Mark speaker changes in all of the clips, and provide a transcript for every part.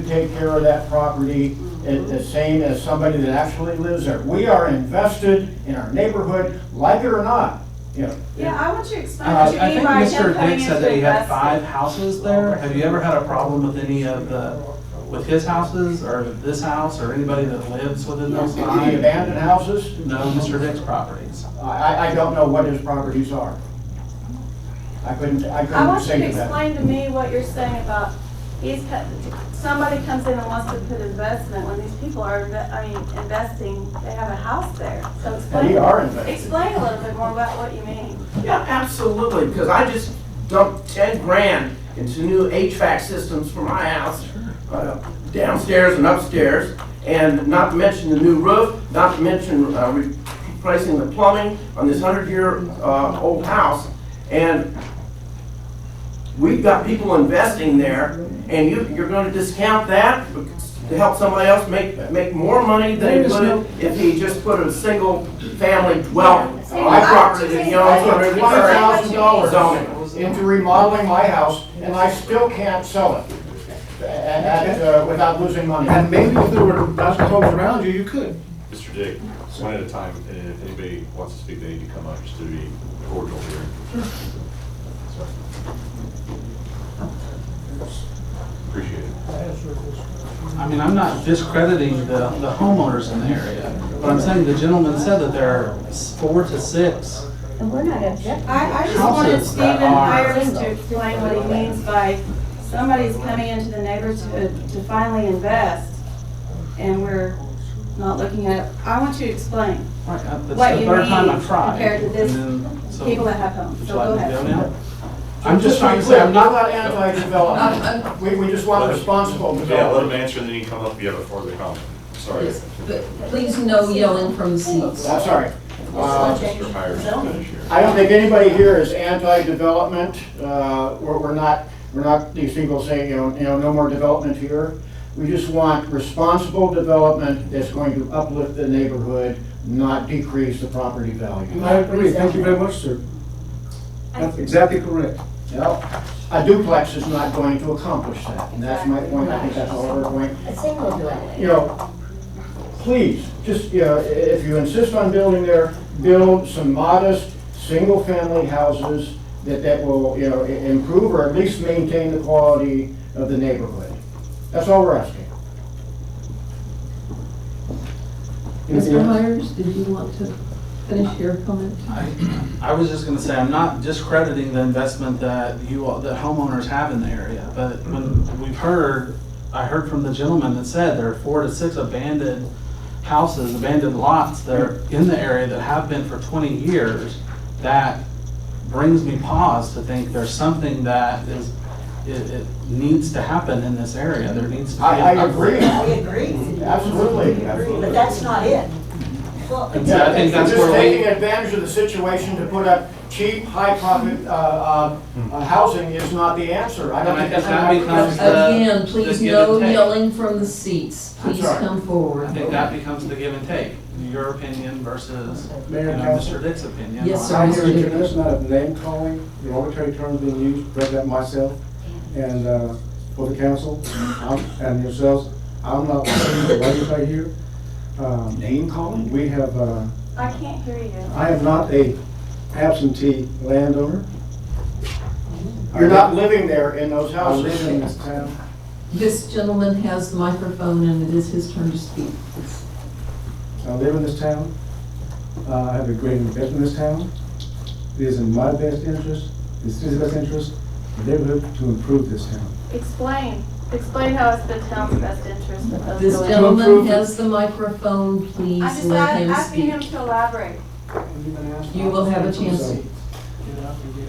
Speaker 1: take care of that property at the same as somebody that actually lives there. We are invested in our neighborhood, like it or not, you know.
Speaker 2: Yeah, I want you to explain
Speaker 3: Uh,
Speaker 2: what you
Speaker 3: I
Speaker 2: mean
Speaker 3: think
Speaker 2: by him
Speaker 3: Mr.
Speaker 2: coming
Speaker 3: Dick
Speaker 2: into
Speaker 3: said that he had
Speaker 2: investment.
Speaker 3: five houses there. Have you ever had a problem with any of the, with his houses or this house or anybody that lives within those
Speaker 1: The
Speaker 3: five?
Speaker 1: abandoned houses,
Speaker 3: No, Mr. Dick's properties.
Speaker 1: I, I don't know what his properties are. I couldn't, I
Speaker 2: I
Speaker 1: couldn't
Speaker 2: want you
Speaker 1: say
Speaker 2: to
Speaker 1: that.
Speaker 2: explain to me what you're saying about, he's, put- somebody comes in and wants to put investment, when these people are, inve- I mean, investing, they have a house there, so
Speaker 1: We
Speaker 2: explain,
Speaker 1: are invested.
Speaker 2: explain a little bit more about what you mean.
Speaker 4: Yeah, absolutely, because I just dumped ten grand into new HVAC systems for my house, uh, downstairs and upstairs, and not to mention the new roof, not to mention uh, replacing the plumbing on this hundred-year-old house. And we've got people investing there, and you, you're gonna discount that to help somebody else make, make more money than he would if he just put a single-family dwelling on a property that he owns
Speaker 1: I
Speaker 4: under
Speaker 1: put
Speaker 4: the
Speaker 1: twenty
Speaker 4: current
Speaker 1: thousand dollars
Speaker 4: zoning.
Speaker 1: into remodeling my house, and I still can't sell it a- a- at, uh, without losing money.
Speaker 5: And maybe if there were thousand homes around you, you could.
Speaker 6: Mr. Dick, one at a time, and if anybody wants to speak, they need to come up, just to be cordial here. So. Appreciate it.
Speaker 3: I mean, I'm not discrediting the, the homeowners in the area, but I'm saying the gentleman said that there are s- four to six.
Speaker 7: And we're not objecting.
Speaker 2: I, I just wanted
Speaker 3: Houses that
Speaker 2: Stephen
Speaker 3: are-
Speaker 2: Hires to explain what he means by somebody's coming into the neighborhood to finally invest, and we're not looking at, it. I want you to explain,
Speaker 3: Right, uh, That's the
Speaker 2: What you
Speaker 3: third time
Speaker 2: need
Speaker 3: I've tried.
Speaker 2: compared to this
Speaker 3: and then- so-
Speaker 2: people that have homes,
Speaker 3: Would
Speaker 2: so
Speaker 3: you
Speaker 2: go
Speaker 3: like me to
Speaker 2: ahead.
Speaker 3: go now? I'm just
Speaker 1: to be
Speaker 3: trying to say,
Speaker 1: clear,
Speaker 3: I'm not,
Speaker 1: We're not anti-development. We, we just want responsible
Speaker 6: Yeah, let him
Speaker 1: development.
Speaker 6: answer, and then you can come up if you have a further comment. Sorry.
Speaker 7: Yes, but Please no yelling from the seats.
Speaker 1: I'm sorry. Uh,
Speaker 6: Mr. Hires, finish here.
Speaker 1: I don't think anybody here is anti-development. Uh, We're we're not, we're not these people saying, you know, you know, no more development here. We just want responsible development that's going to uplift the neighborhood, not decrease the property value.
Speaker 5: I agree, thank you very much, sir. That's exactly correct.
Speaker 1: Well, a duplex is not going to accomplish that, and that's my point, I think that's all we're going.
Speaker 7: A single dwelling.
Speaker 1: You know, please, just, you know, i- if you insist on building there, build some modest, single-family houses that, that will, you know, i- improve or at least maintain the quality of the neighborhood. That's all we're asking.
Speaker 8: Mr. Myers, did you want to finish your comment?
Speaker 3: I, I was just gonna say, I'm not discrediting the investment that you, all that homeowners have in the area, but when we've heard, I heard from the gentleman that said there are four to six abandoned houses, abandoned lots that are in the area that have been for twenty years, that brings me pause to think there's something that is, it, it needs to happen in this area, there needs to be.
Speaker 1: I,
Speaker 3: an
Speaker 1: I
Speaker 3: upgrade.
Speaker 1: agree,
Speaker 9: We agree,
Speaker 1: absolutely, absolutely.
Speaker 9: but that's not it. Well,
Speaker 3: And so I think that's
Speaker 1: Just
Speaker 3: where we.
Speaker 1: taking advantage of the situation to put up cheap, high-profit, uh, uh, uh, housing is not the answer. I don't
Speaker 3: Hmm. And I
Speaker 1: think that's.
Speaker 3: think that
Speaker 1: how-
Speaker 3: becomes the-
Speaker 7: Again,
Speaker 3: Uh, Just give
Speaker 7: please
Speaker 3: and
Speaker 7: no
Speaker 3: take.
Speaker 7: yelling from the seats.
Speaker 1: I'm
Speaker 7: Please
Speaker 1: sorry.
Speaker 7: come forward.
Speaker 3: I think that becomes the give and take, your opinion versus, you
Speaker 5: Mayor
Speaker 3: know,
Speaker 5: and council.
Speaker 3: Mr. Dick's opinion.
Speaker 7: Yes,
Speaker 3: on-
Speaker 7: sir.
Speaker 5: I hear a tremendous amount of name calling, the arbitrary terms being used, read that myself, and, uh, for the council, I'm- and yourselves, I'm not listening to what you say here. Um,
Speaker 1: Name calling?
Speaker 5: we have, uh,
Speaker 2: I can't hear you.
Speaker 5: I am not a absentee landowner.
Speaker 1: You're not living there in those
Speaker 5: I live in
Speaker 1: houses.
Speaker 5: this town.
Speaker 7: This gentleman has the microphone and it is his turn to speak.
Speaker 5: I live in this town. Uh, I have a great investment in this town. It is in my best interest, the city's best interest, the neighborhood to improve this town.
Speaker 2: Explain, explain how it's the town's best interest that those
Speaker 7: This
Speaker 2: go in.
Speaker 7: gentleman
Speaker 5: approve it.
Speaker 7: has the microphone.
Speaker 2: I'm
Speaker 7: Please
Speaker 2: just
Speaker 7: let
Speaker 2: a-
Speaker 7: him
Speaker 2: asking
Speaker 7: speak.
Speaker 2: him to elaborate,
Speaker 7: You will have a chance to.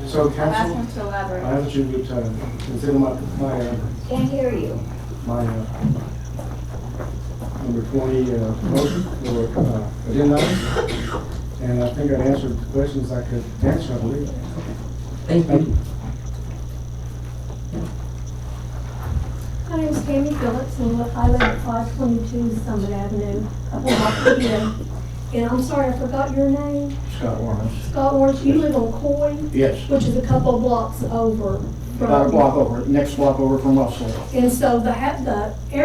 Speaker 5: So
Speaker 2: I'm asking
Speaker 5: council,
Speaker 2: him to
Speaker 5: I
Speaker 2: elaborate.
Speaker 5: ask you to uh, consider my, my, uh,
Speaker 7: Can't hear you.
Speaker 5: my, uh, number twenty, uh, motion or, uh, agenda item. And I think I answered the questions I could answer, I believe.
Speaker 7: Thank
Speaker 5: Thank you.
Speaker 7: you.
Speaker 10: My name is Tammy Phillips, and I live at 522 Summit Avenue, up in Rockford Hill. And I'm sorry, I forgot your name.
Speaker 1: Scott Warren.
Speaker 10: Scott Orange, you live on Coy,
Speaker 1: Yes,
Speaker 10: which is a couple blocks over from...
Speaker 1: about a block over, next block over from Russell.
Speaker 10: And so the, ha- the